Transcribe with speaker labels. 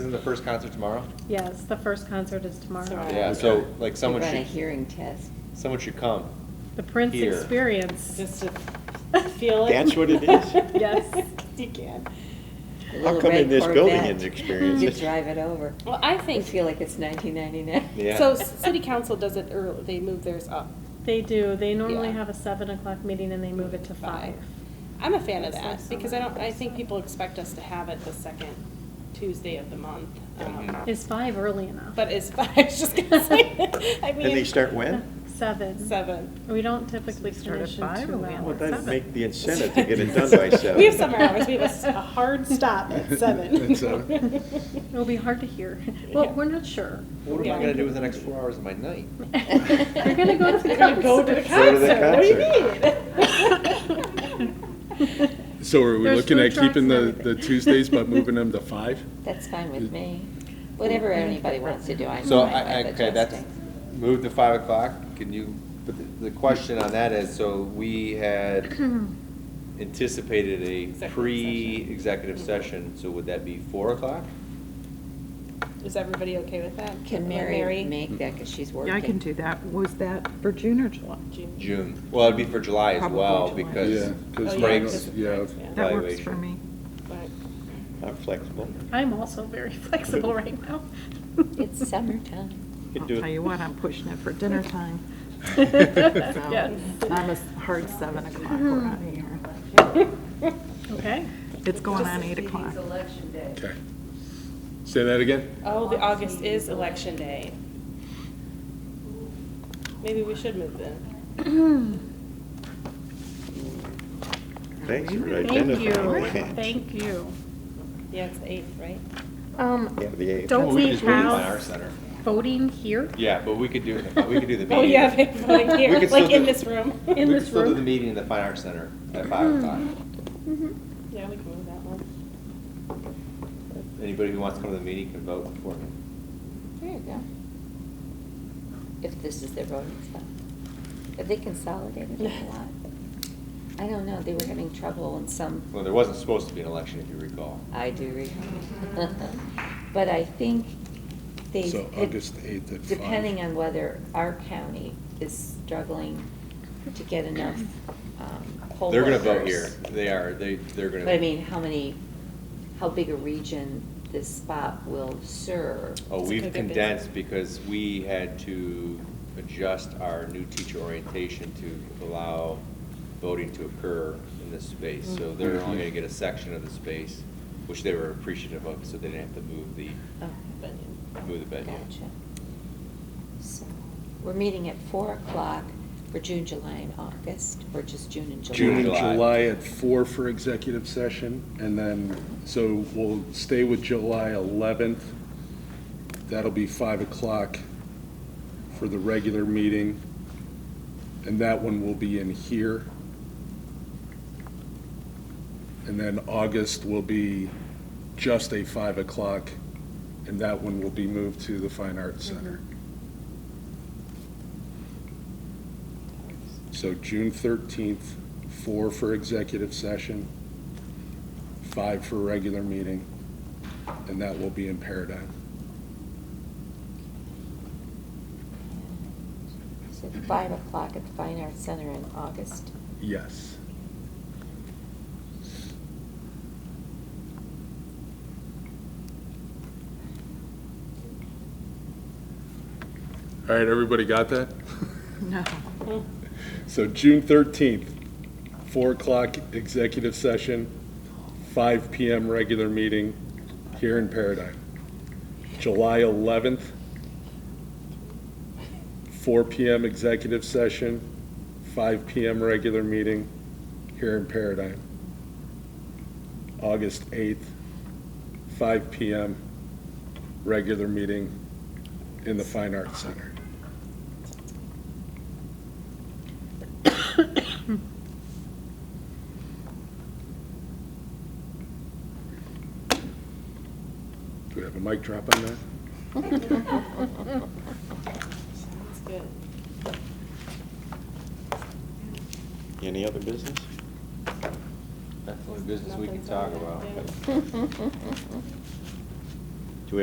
Speaker 1: isn't the first concert tomorrow?
Speaker 2: Yes, the first concert is tomorrow.
Speaker 3: Sorry.
Speaker 1: Yeah, so like someone
Speaker 4: Run a
Speaker 1: should,
Speaker 4: hearing test.
Speaker 1: someone should come.
Speaker 2: The Prince
Speaker 1: Here.
Speaker 2: Experience.
Speaker 3: Just to feel it.
Speaker 5: That's what it is?
Speaker 2: Yes.
Speaker 3: You can.
Speaker 4: The
Speaker 5: How
Speaker 4: little
Speaker 5: come in
Speaker 4: red
Speaker 5: this building
Speaker 4: Corvette,
Speaker 5: isn't experienced?
Speaker 4: You drive it over.
Speaker 3: Well, I
Speaker 4: You
Speaker 3: think.
Speaker 4: feel like it's 1999.
Speaker 1: Yeah.
Speaker 3: So s- city council does it early, they move theirs up.
Speaker 2: They do. They normally
Speaker 3: Yeah.
Speaker 2: have a seven o'clock meeting and they move it to five.
Speaker 3: I'm a fan of
Speaker 4: That's
Speaker 3: that,
Speaker 4: like
Speaker 3: because I don't, I think people expect us to have it the second Tuesday of the month. um,
Speaker 1: Mhm.
Speaker 2: Is five early enough?
Speaker 3: But it's, I was just gonna say, I mean.
Speaker 5: And they start when?
Speaker 2: Seven.
Speaker 3: Seven.
Speaker 2: We don't typically finish in two
Speaker 5: Well,
Speaker 2: hours.
Speaker 5: that'd make the incentive to get it done by seven.
Speaker 3: We have summer hours, we have a s- a hard stop at seven.
Speaker 6: At seven.
Speaker 2: It'll be hard to hear. Well,
Speaker 3: Yeah.
Speaker 2: we're not sure.
Speaker 1: What am I gonna do with the next four hours of my night?
Speaker 2: You're gonna go to the
Speaker 3: We're gonna go to the
Speaker 2: concert.
Speaker 5: Go to the
Speaker 3: concert, what do you
Speaker 5: concert.
Speaker 3: mean?
Speaker 6: So are we
Speaker 2: There's
Speaker 6: looking
Speaker 2: food
Speaker 6: at
Speaker 2: trucks and
Speaker 6: keeping the, the
Speaker 2: everything.
Speaker 6: Tuesdays but moving them to five?
Speaker 4: That's fine with me. Whatever anybody wants to do, I'm
Speaker 1: So,
Speaker 4: fine
Speaker 1: I, I-
Speaker 4: with
Speaker 1: okay, that's,
Speaker 4: adjusting.
Speaker 1: moved to five o'clock, can you, but the- the question on that is, so we had anticipated a
Speaker 3: Executive
Speaker 1: pre-executive session, so would that be four o'clock?
Speaker 3: Is everybody okay with that?
Speaker 4: Can Mary make that, because she's working?
Speaker 7: Yeah, I can do that. Was that for June or July?
Speaker 3: June.
Speaker 1: June, well, it'd be for July as
Speaker 7: Probably
Speaker 1: well,
Speaker 7: July.
Speaker 1: because
Speaker 6: Yeah, 'cause
Speaker 3: Oh,
Speaker 1: breaks.
Speaker 3: yeah, 'cause of
Speaker 6: yeah.
Speaker 3: breaks, yeah.
Speaker 7: That works for
Speaker 1: Evaluation.
Speaker 7: me.
Speaker 3: But-
Speaker 5: I'm flexible.
Speaker 2: I'm also very flexible right now.
Speaker 4: It's summertime.
Speaker 5: Could
Speaker 7: I'll
Speaker 5: do it.
Speaker 7: tell you what, I'm pushing it for dinner time. So,
Speaker 2: Yes.
Speaker 7: Not a hard seven o'clock, we're out of here.
Speaker 2: Okay.
Speaker 7: It's going on eight o'clock.
Speaker 6: Okay. Say that again?
Speaker 3: Oh, the August is election day. Maybe we should move then.
Speaker 5: Thanks for
Speaker 2: Thank you.
Speaker 5: identifying that.
Speaker 2: Thank you.
Speaker 3: Yeah, it's the eighth, right?
Speaker 2: Um,
Speaker 5: Yeah, the eighth.
Speaker 2: don't we
Speaker 6: Just move it to our
Speaker 2: have
Speaker 6: center.
Speaker 2: voting here?
Speaker 1: Yeah, but we could do, we could do the meeting.
Speaker 3: Oh, yeah, they voted
Speaker 1: We
Speaker 3: here,
Speaker 1: could
Speaker 3: like
Speaker 1: still
Speaker 3: in
Speaker 1: do-
Speaker 3: this room.
Speaker 2: In
Speaker 1: We
Speaker 2: this
Speaker 1: could still do
Speaker 2: room?
Speaker 1: the meeting in the Fine Arts Center at
Speaker 4: Hmm.
Speaker 1: five o'clock.
Speaker 3: Yeah, we can move that one.
Speaker 1: Anybody who wants to come to the meeting can vote beforehand.
Speaker 4: There you go. If this is their voting stuff. Have they consolidated it a lot? I don't know, they were having trouble in some
Speaker 1: Well, there wasn't supposed to be an election, if you recall.
Speaker 4: I do recall. But I think they.
Speaker 6: So August 8th at five.
Speaker 4: Depending on whether our county is struggling to get enough um, poll
Speaker 1: They're gonna vote here.
Speaker 4: workers.
Speaker 1: They are, they, they're gonna.
Speaker 4: But I mean, how many, how big a region this spot will serve?
Speaker 1: Oh,
Speaker 3: It's a
Speaker 1: we've
Speaker 3: good bit.
Speaker 1: condensed because we had to adjust our new teacher orientation to allow voting to occur in this space. So they're
Speaker 4: Mm-hmm.
Speaker 1: only gonna get a section of the space, which they were appreciative of, so they didn't have to move the,
Speaker 4: Oh,
Speaker 1: move the venue.
Speaker 4: Gotcha. So, we're meeting at four o'clock for June, July, and August, or just June and July?
Speaker 1: June and
Speaker 6: June and
Speaker 1: July.
Speaker 6: July at four for executive session, and then, so we'll stay with July 11th. That'll be five o'clock for the regular meeting, and that one will be in here. And then August will be just a five o'clock, and that one will be moved to the Fine Arts Center. So June thirteenth, four for executive session, five for regular meeting, and that will be in Paradigm.
Speaker 4: So five o'clock at the Fine Arts Center in August.
Speaker 6: Yes. All right, everybody got that?
Speaker 7: No.
Speaker 6: So June thirteenth, four o'clock executive session, five PM regular meeting here in Paradigm. July eleventh, four PM executive session, five PM regular meeting here in Paradigm. August eighth, five PM regular meeting in the Fine Arts Center. Do we have a mic drop on that?
Speaker 3: Sounds good.
Speaker 5: Any other business?
Speaker 1: That's the only business we can talk about.
Speaker 3: Yeah.